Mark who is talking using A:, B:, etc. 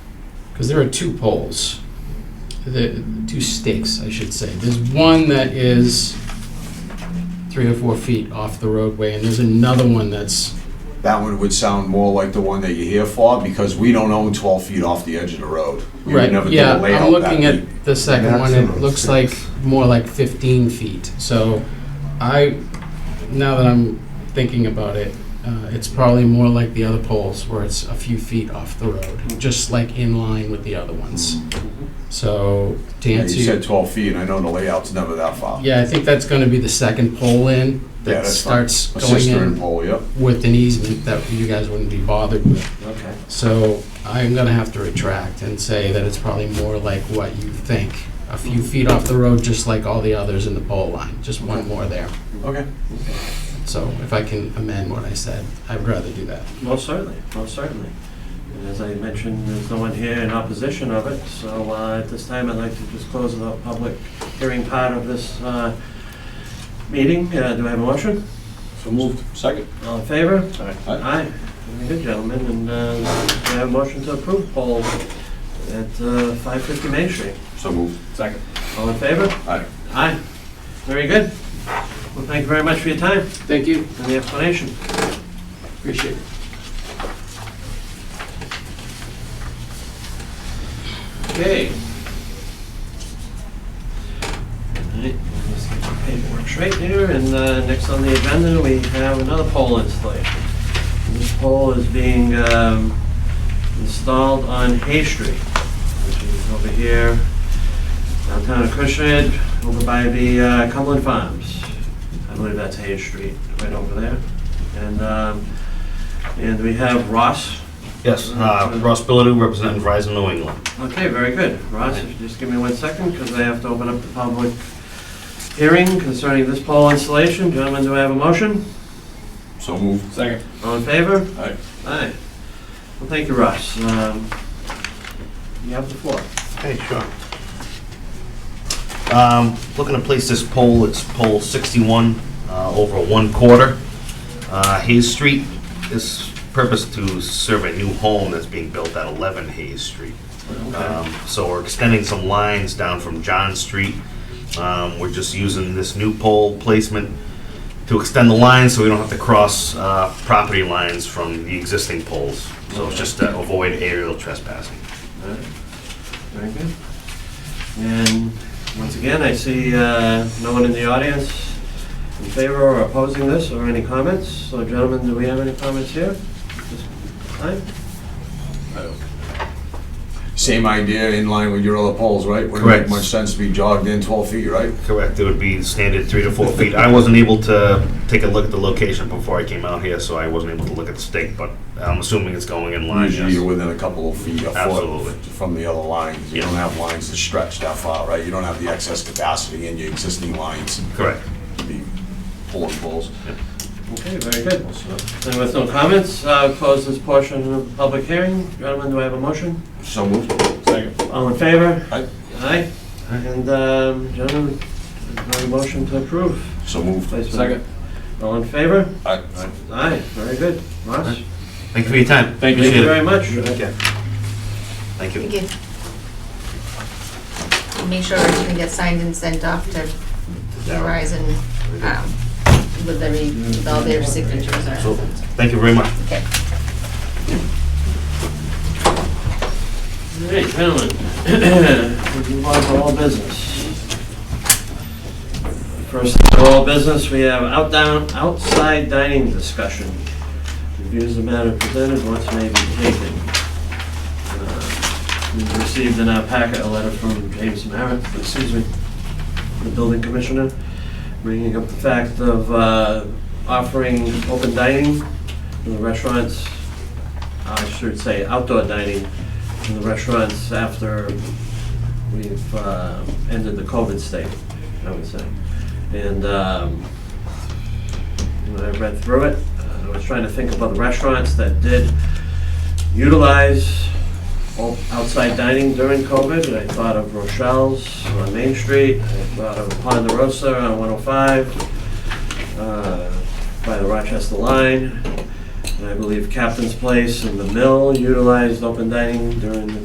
A: because there are two poles, the, two stakes, I should say. There's one that is three or four feet off the roadway, and there's another one that's,
B: That one would sound more like the one that you're here for, because we don't own twelve feet off the edge of the road. We would
A: right,
B: never do a
A: yeah, I'm
B: layout that
A: looking
B: deep.
A: at the second one, it
C: Maximum
A: looks
C: six.
A: like more like fifteen feet. So I, now that I'm thinking about it, uh, it's probably more like the other poles, where it's a few feet off the road, just like in line with the other ones.
B: Mm-hmm.
A: So to
B: Yeah,
A: answer
B: You
A: your
B: said twelve feet, and I know the layout's never that far.
A: Yeah, I think that's gonna be the second pole in
B: Yeah,
A: that
B: that's
A: starts
B: A
A: going
B: sister and
A: in
B: pole, yep.
A: with an easement that you guys wouldn't be bothered with.
B: Okay.
A: So I'm gonna have to retract and say that it's probably more like what you think. A few feet off the road, just like all the others in the pole line, just one more there.
B: Okay.
A: So if I can amend what I said, I'd rather do that.
D: Most certainly, most certainly. And as I mentioned, there's no one here in opposition of it, so uh, at this time, I'd like to just close the public hearing part of this uh, meeting. Uh, Do I have a motion?
B: So moved. Second.
D: All in favor?
B: Aye.
D: Aye. Very good, gentlemen, and uh, do I have a motion to approve poll at uh, 550 Main Street?
B: So moved. Second.
D: All in favor?
B: Aye.
D: Aye. Very good. Well, thank you very much for your time
A: Thank you,
D: and the explanation.
A: appreciate it.
D: Okay. Alright, let's get the Paperwork straight here, and uh, next on the agenda, we have another pole installation. This pole is being um, installed on Hay Street, which is over here, downtown of Acushnet, over by the uh, Cumberland Farms. I believe that's Hay Street, right over there. And, um, and we have Ross
E: Yes, uh, Ross Billadu, representing Verizon New England.
D: Okay, very good. Ross, if you just give me one second, because I have to open up the public hearing concerning this pole installation. Gentlemen, do I have a motion?
B: So moved. Second.
D: All in favor?
B: Aye.
D: Aye. Well, thank you, Ross. Um, You have the floor.
E: Hey, sure. Um, Looking to place this pole, it's pole 61 uh, over one quarter. Uh, Hayes Street is purposed to serve a new home that's being built at 11 Hayes Street. Um, So we're extending some lines down from John Street. Um, We're just using this new pole placement to extend the lines so we don't have to cross uh, property lines from the existing poles. So it's just to avoid aerial trespassing.
D: Alright, Very good. And once again, I see uh, no one in the audience in favor or opposing this or any comments. So gentlemen, do we have any comments here? This time?
B: Same idea in line with your other poles, right? Wouldn't make
E: Correct.
B: much sense to be jogged in twelve feet, right?
E: Correct, it would be standard three to four feet. I wasn't able to take a look at the location before I came out here, so I wasn't able to look at the stake, but I'm assuming it's going in line,
B: Usually you're
E: yes.
B: within a couple of feet, a
E: Absolutely.
B: foot from the other lines. You
E: Yeah.
B: don't have lines that stretch that far, right? You don't have the excess capacity in your existing lines
E: Correct.
B: to be pulling poles.
D: Okay, very good. And with no comments, uh, close this portion of the public hearing. Gentlemen, do I have a motion?
B: So moved. Second.
D: All in favor?
B: Aye.
D: Aye. And um, gentlemen, do I have a motion to approve?
B: So moved.
D: placement? All in favor?
B: Aye.
D: Aye, very good. Ross?
E: Thank you for your time.
D: Thank
E: Appreciate
D: you
E: it.
D: very much.
E: Thank you.
F: Thank you. Make sure everything gets signed and sent off to Verizon um, with every, with all their signatures or
E: So,
F: something.
E: Thank you very much.
F: Okay.
D: All right, gentlemen, we move on to all business. First of all business, we have out down, outside dining discussion. Reviews the matter presented, once may be taken. Uh, We've received in our packet a letter from James Merritt, excuse me, the building commissioner, bringing up the fact of uh, offering open dining in the restaurants, I should say outdoor dining in the restaurants after we've uh, ended the COVID state, I would say. And um, when I read through it, Uh, I was trying to think about the restaurants that did utilize o- outside dining during COVID. And I thought of Rochelle's on Main Street, I thought of Ponderosa on 105, uh, by the Rochester line. And I believe Captain's Place and the Mill utilized open dining during the